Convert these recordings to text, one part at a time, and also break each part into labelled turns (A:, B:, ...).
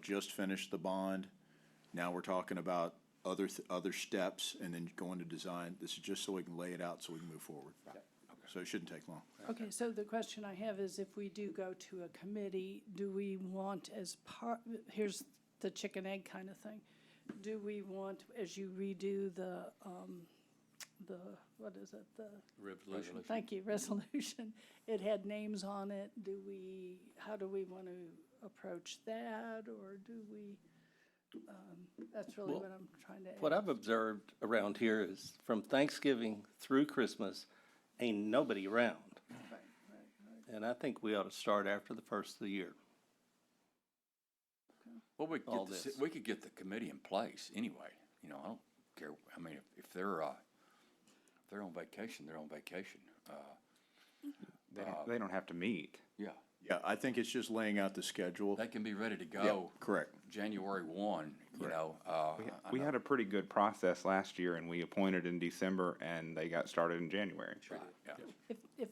A: just finished the bond. Now we're talking about other, th- other steps and then going to design. This is just so we can lay it out so we can move forward. So it shouldn't take long.
B: Okay, so the question I have is if we do go to a committee, do we want as part, here's the chicken egg kind of thing. Do we want, as you redo the, um, the, what is it, the?
C: Revolution.
B: Thank you, resolution. It had names on it. Do we, how do we want to approach that, or do we? um, That's really
C: Well,
B: what I'm trying to ask.
C: What I've observed around here is from Thanksgiving through Christmas, ain't nobody around. And I think we ought to start after the first of the year.
D: Well, we could
C: all
D: get, the
C: this.
D: ci- we could get the committee in place anyway, you know, I don't care, I mean, if- if they're, uh, if they're on vacation, they're on vacation, uh,
E: They don't, they don't have to meet.
D: yeah.
A: Yeah, I think it's just laying out the schedule.
D: They can be ready to
A: Yeah,
D: go
A: Correct.
D: January one, you know, uh,
E: We,
D: I- I
E: we
D: know-
E: had a pretty good process last year and we appointed in December and they got started in January.
D: yeah.
B: If, if,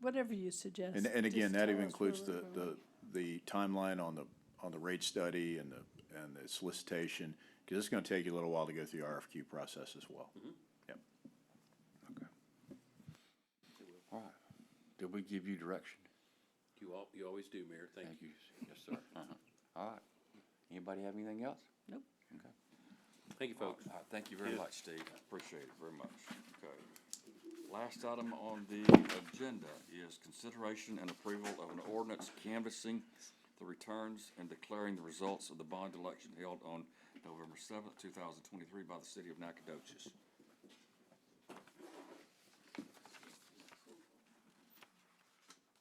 B: whatever you suggest.
A: And, and again,
B: just
A: that
B: tell
A: even
B: us where
A: includes
B: we're
A: the,
B: going.
A: the, the timeline on the, on the rate study and the, and the solicitation, because it's gonna take you a little while to go through the RFQ process as well. Yep.
D: All right. Did we give you direction?
F: You al- you always do, Mayor, thank you.
D: Thank you, yes, sir. Uh-huh. All right. Anybody have anything else?
B: Nope.
D: Okay.
F: Thank you, folks.
D: All right, uh, Thank you very
F: Yes.
D: much, Steve. I Appreciate it very much. Okay. Last item on the agenda is consideration and approval of an ordinance canvassing the returns and declaring the results of the bond election held on November seventh, two thousand twenty-three by the city of Nacogdoches.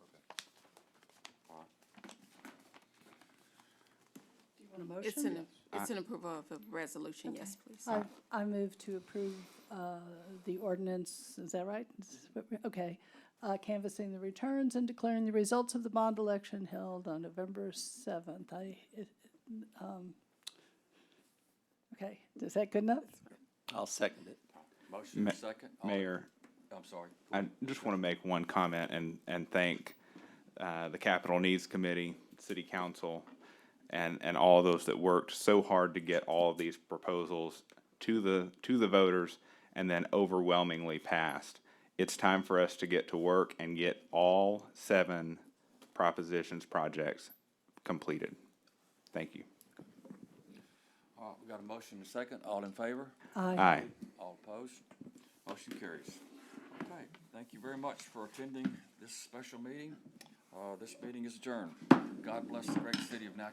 D: Okay. All right.
B: Do you want a motion?
G: It's an, it's an approval of a uh, resolution, yes, please.
B: I, I move to approve uh, the ordinance, is that right? Is what we- Okay. Uh, Canvassing the returns and declaring the results of the bond election held on November 7th. I, it- um, okay, is that good enough?
C: I'll second it.
D: Motion
E: Ma-
D: and second? All-
E: Mayor,
D: I'm sorry.
E: I just want to make one comment and, and thank uh, the Capital Needs Committee, City Council, and, and all those that worked so hard to get all of these proposals to the, to the voters and then overwhelmingly passed. It's time for us to get to work and get all seven propositions projects completed. Thank you.
D: All right, Uh, we got a motion and second. All in favor?
B: Aye.
E: Aye.
D: All opposed? Motion carries. Okay, thank you very much for attending this special meeting. Uh, this meeting is adjourned. God bless the great city of Nacogdoches.